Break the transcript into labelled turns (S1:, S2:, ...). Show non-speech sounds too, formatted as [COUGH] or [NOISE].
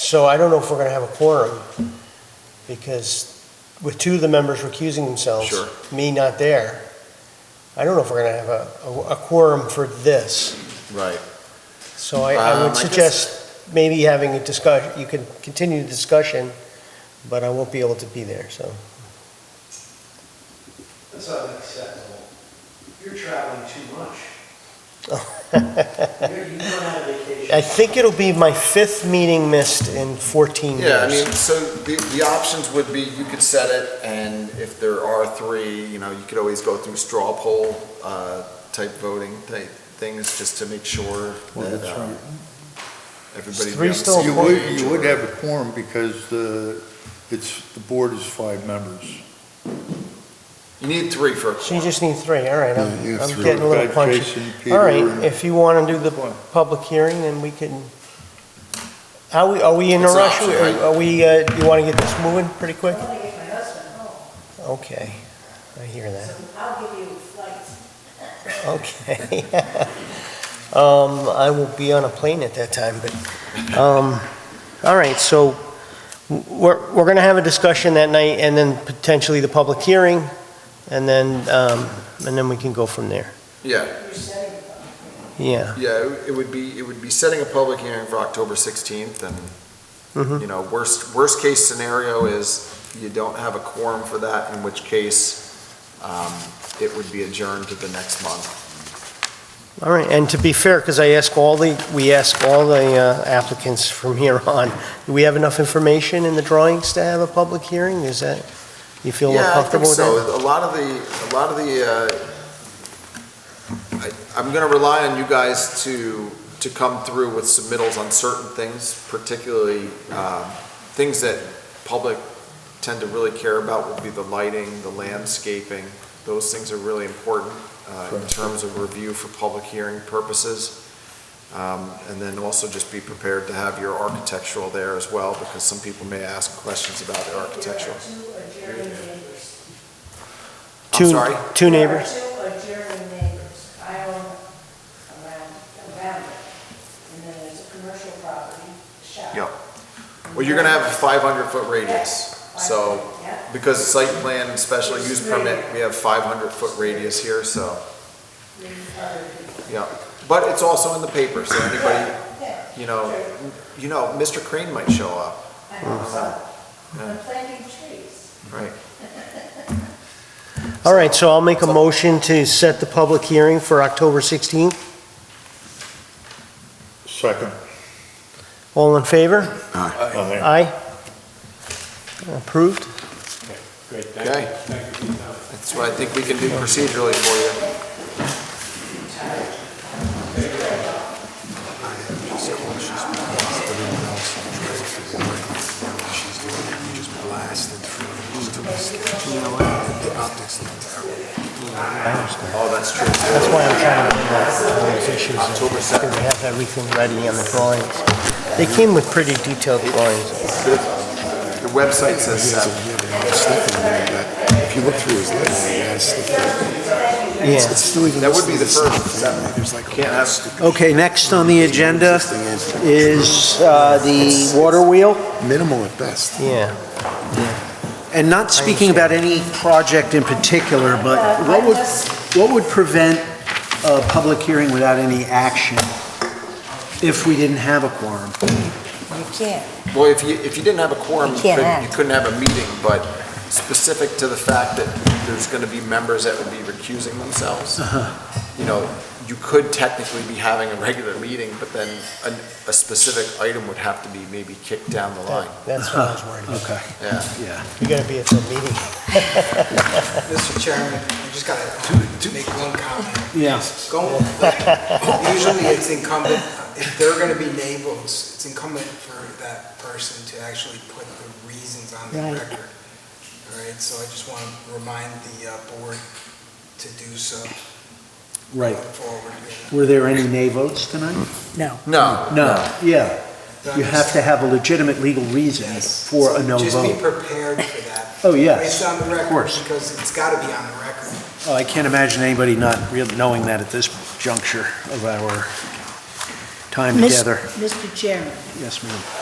S1: So I don't know if we're gonna have a quorum, because with two of the members recusing themselves.
S2: Sure.
S1: Me not there, I don't know if we're gonna have a, a- a quorum for this.
S2: Right.
S1: So I, I
S2: Um, I
S1: would
S2: guess-
S1: suggest maybe having a discuss, you can continue the discussion, but I won't be able to be there, so. [LAUGHS]
S3: That's unacceptable. You're traveling too much. [LAUGHS] You're- You don't have a vacation.
S1: I think it'll be my fifth meeting missed in 14 years.
S2: Yeah, I mean, so the, the options would be, you could set it, and if there are three, you know, you could always go through straw poll, uh, type voting type things, just to make sure
S4: Well,
S2: that,
S4: that's
S2: uh,
S4: right. Oh,
S2: everybody.
S1: Three still
S4: You would, you would have a quorum because the, it's, the board is five members.
S2: You need three for a
S1: So you
S2: quorum.
S1: just need three, all right,
S4: Yeah, you
S1: I'm
S4: have
S1: I'm
S4: three.
S1: getting a little
S4: Got
S1: punchy.
S4: Jason,
S1: All right,
S4: Peter, and-
S1: if you want to do the public hearing, then we can, how, we- are we in a
S2: It's an
S1: rush?
S2: option, right?
S1: Are are we, uh, do you want to get this moving pretty quick?
S5: I want to get my husband home,
S1: Okay, I hear that,
S5: so I'll give you flights.
S1: okay. [LAUGHS] Um, I will be on a plane at that time, but, um, all right, so we're, we're going to have a discussion that night, and then potentially the public hearing, and then, um, and then we can go from there,
S2: Yeah,
S5: You're setting them.
S1: yeah.
S2: yeah, it- it would be, it would be setting a public hearing for October sixteenth, and
S1: Mhm.
S4: Mm-hmm.
S2: you know, worst, worst case scenario is you don't have a quorum for that, in which case, um, it would be adjourned to the next month.
S1: All right, and to be fair, because I ask all the, we ask all the uh, applicants from here [LAUGHS] on, do we have enough information in the drawings to have a public hearing? Is that, you feel more
S2: Yeah, I think
S1: comfortable with that?
S2: so. A lot of the, a lot of the, uh, I, I'm gonna rely on you guys to, to come through with submittals on certain things, particularly, um, things that public tend to really care about would be the lighting, the landscaping. Those things are really important, uh, in
S4: Correct.
S2: terms of review for public hearing purposes. Um, and then also just be prepared to have your architectural there as well, because some people may ask questions about the architectural.
S5: There are two adjourned neighbors.
S2: I'm
S1: Two-
S2: sorry?
S1: Two neighbors?
S5: There are two adjourned neighbors. I own around, around it. And then there's a commercial property, shop.
S2: Yep. Well, you're gonna have a five hundred foot radius, so,
S5: Yeah.
S2: because the site plan and special use permit, we have five hundred foot radius here, so,
S5: three other people.
S2: yeah. But it's also in the paper, so anybody,
S5: Yeah,
S2: you know, you know, Mr. Crane might show up,
S5: I hope so. I'm planting trees.
S2: right?
S1: All right, so I'll make a motion to set the public hearing for October 16th.
S4: Second.
S1: All in favor?
S4: Aye.
S1: Aye? Approved?
S6: Great, thank you.
S2: Okay.
S6: Thank you for your time.
S2: That's what I think we can do procedurally for you. Oh, that's true.
S1: That's why I'm trying to bring up all those issues, because they have everything ready on the drawings. They came with pretty detailed drawings.
S2: The website says seven.
S7: If you look through his letter, he has stuff there. It's-
S1: Yeah.
S7: it's still even
S2: That would be the
S7: listed as
S2: first
S7: something.
S2: seven.
S7: There's like a
S2: Can't have-
S7: stupid
S3: Okay, next on the agenda is uh, the water wheel,
S7: Minimal at best.
S1: Yeah.
S3: and not speaking about any project in particular, but what would, what would prevent a public hearing without any action if we didn't have a quorum?
S8: You can't.
S2: Well, if you, if you didn't have a quorum, you
S8: You can't
S2: couldn't,
S8: act.
S2: you couldn't have a meeting, but specific to the fact that there's gonna be members that would be recusing themselves. You know, you could technically be having a regular meeting, but then a, a specific item would have to be maybe kicked down the line,
S1: That's what I was worried about.
S3: Okay,
S2: yeah.
S3: yeah.
S1: You gotta be at the meeting.
S9: Mr. Chairman, I just gotta uh, make one comment.
S3: Yeah.
S9: Go- Usually it's incumbent, if they're gonna be neighbors, it's incumbent for that person to actually put the reasons on the
S8: Right.
S9: record. All right, so I just want to remind the uh, board to do so.
S3: Right.
S9: Forward.
S3: Were there any nay votes tonight?
S8: No.
S2: No,
S3: No, yeah. You have to have a legitimate legal reason for a no
S9: Just be
S3: vote.
S9: prepared for that.
S3: Oh, yes,
S9: It's on the
S3: of
S9: record,
S3: course.
S9: because it's gotta be on the record.
S3: Oh, I can't imagine anybody not real- knowing that at this juncture of our time
S8: Mis-
S3: together.
S8: Mr. Chairman,
S3: Yes, ma'am.